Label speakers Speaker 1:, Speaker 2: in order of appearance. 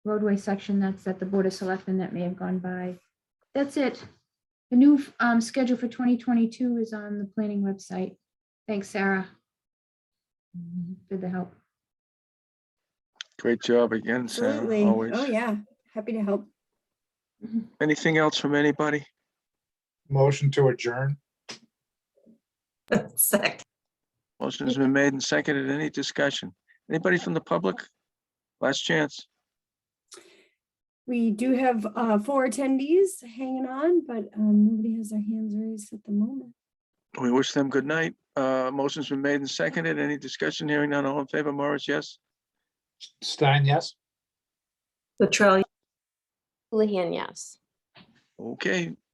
Speaker 1: roadway section that's at the Board of Selectmen that may have gone by. That's it. The new um, schedule for 2022 is on the planning website. Thanks, Sarah. For the help.
Speaker 2: Great job again, Sam,
Speaker 3: Absolutely.
Speaker 2: always.
Speaker 3: Oh, yeah. Happy to help.
Speaker 2: Anything else from anybody?
Speaker 4: Motion to adjourn.
Speaker 5: Sec.
Speaker 2: Motion's been made and seconded. Any discussion? Anybody from the public? Last chance.
Speaker 3: We do have uh, four attendees hanging on, but um, nobody has their hands raised at the moment.
Speaker 2: We wish them good night. Uh, motion's been made and seconded. Any discussion? Hearing none. All in favor, Morris, yes?
Speaker 4: Stein, yes?
Speaker 5: Latrell,
Speaker 6: Houlihan, yes.
Speaker 2: Okay,